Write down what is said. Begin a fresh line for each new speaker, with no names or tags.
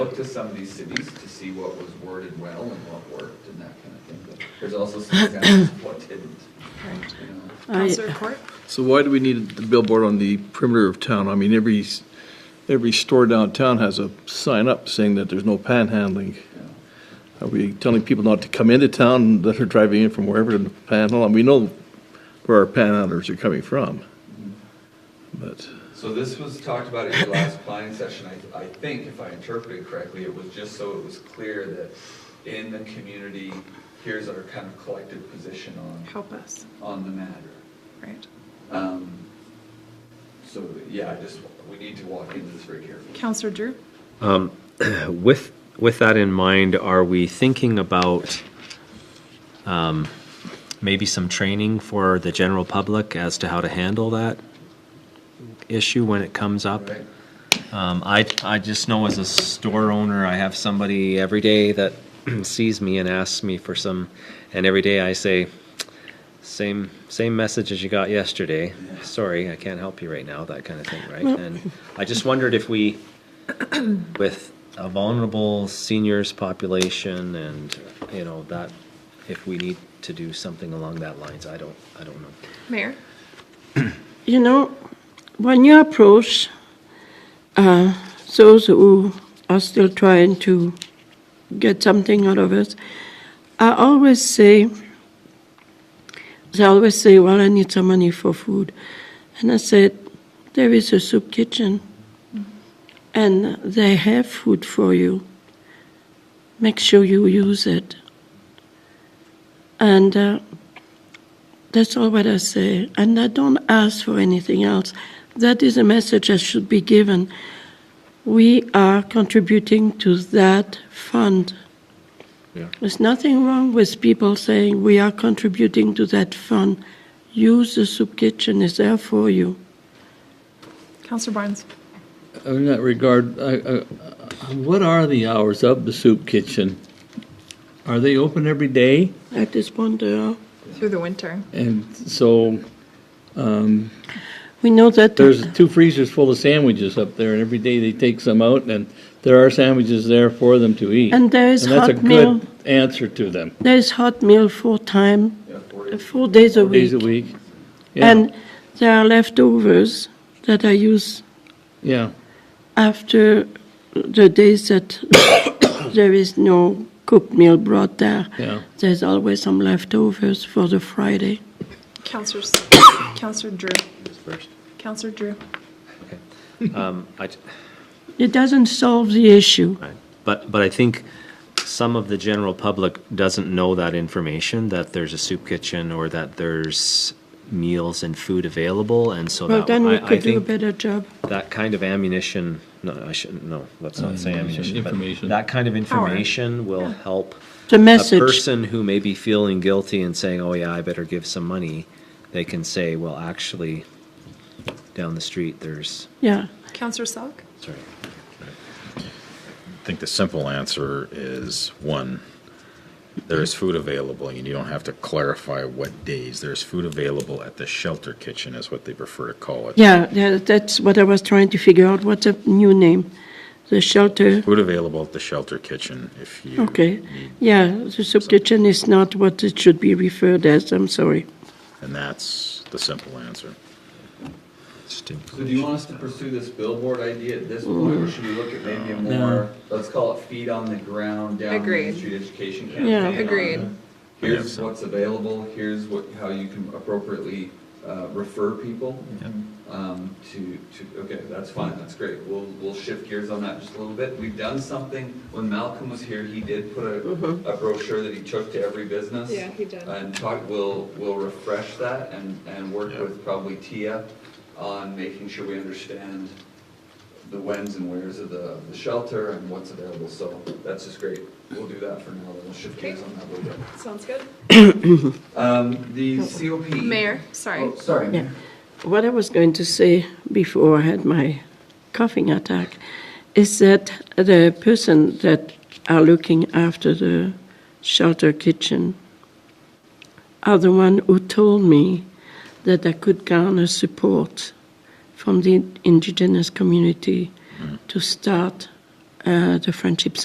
to some of these cities to see what was worded well and what worked and that kind of thing. But There's also some examples of what didn't, you know.
Counselor Court?
So why do we need the billboard on the perimeter of town? I mean, every, s- every store downtown has a sign up saying that there's no panhandling. Are we telling people not to come into town that are driving in from wherever to panhandle? And we know where our panhandlers are coming from. But,
So this was talked about at your last planning session, I, I think, if I interpreted correctly, it was just so it was clear that in the community, here's our kind of collective position on,
Help us,
on the matter.
right.
Um, So, yeah, I just, we need to walk into this very carefully.
Counselor Drew?
With, with that in mind, are we thinking about um, maybe some training for the general public as to how to handle that issue when it comes up?
Right?
Um, I, I just know as a store owner, I have somebody every day that sees me and asks me for some, and every day I say, same, same message as you got yesterday. Sorry, I can't help you right now, that kind of thing, right? And I just wondered if we, with a vulnerable seniors population and, you know, that, if we need to do something along that lines, I don't, I don't know.
Mayor?
You know, when you approach uh, those who are still trying to get something out of it, I always say, they always say, well, I need some money for food. And I said, there is a soup kitchen, and they have food for you. Make sure you use it. And uh, that's all what I say, and I don't ask for anything else. That is a message that should be given. We are contributing to that fund.
Yeah.
There's nothing wrong with people saying we are contributing to that fund. Use the soup kitchen; it's there for you.
Counselor Barnes?
In that regard, I, I, what are the hours of the soup kitchen? Are they open every day?
At this point, they are.
Through the winter.
And so um,
we know that
there's two freezers full of sandwiches up there, and every day they take some out, and there are sandwiches there for them to eat.
And there is
that's a
hot meal.
good answer to them.
there is hot meal four time,
Yeah, four days.
four days a week,
Days a week. Yeah,
and there are leftovers that I use
yeah.
after the days that there is no cooked meal brought there,
Yeah.
there's always some leftovers for the Friday.
Counselor, S- Counselor Drew? Counselor Drew?
Um, I,
It doesn't solve the issue.
Right. But, but I think some of the general public doesn't know that information, that there's a soup kitchen or that there's meals and food available, and so
Well,
that,
then we
I, I
could do a
think
better job.
that kind of ammunition, no, I shouldn't, no, let's not say ammunition, but
Information.
that kind of information will help
The
a
message,
person who may be feeling guilty and saying, oh yeah, I better give some money, they can say, well, actually, down the street, there's,
yeah.
Counselor Selk?
sorry,
I think the simple answer is one, there is food available, and you don't have to clarify what days. There's food available at the shelter kitchen, is what they prefer to call it.
Yeah, tha- that's what I was trying to figure out, what's a new name? The shelter,
Food available at the shelter kitchen if you
okay.
need,
Yeah, the soup kitchen is not what it should be referred as, I'm sorry.
and that's the simple answer.
just in-
So do you want us to pursue this billboard idea at this point, or should we look at maybe a more, let's call it feet on the ground, down Main
Agreed.
Street education campaign?
Yeah.
on
Agreed.
Here's what's available, here's what, how you can appropriately uh, refer people um, to, to, okay, that's fine, that's great. We'll, we'll shift gears on that just a little bit. We've done something, when Malcolm was here, he did put a a brochure that he took to every business.
Yeah, he did.
And talk, we'll, we'll refresh that and, and work with probably Tia on making sure we understand the whens and wheres of the, the shelter and what's available. So that's just great. We'll do that for now, then we'll shift gears on that a little bit.
Sounds good.
Um, the COP.
Mayor, sorry.
Oh, sorry,
Yeah.
Mayor.
What I was going to say before I had my coughing attack is that the person that are looking after the shelter kitchen are the one who told me that I could garner support from the indigenous community to start uh, the Friendship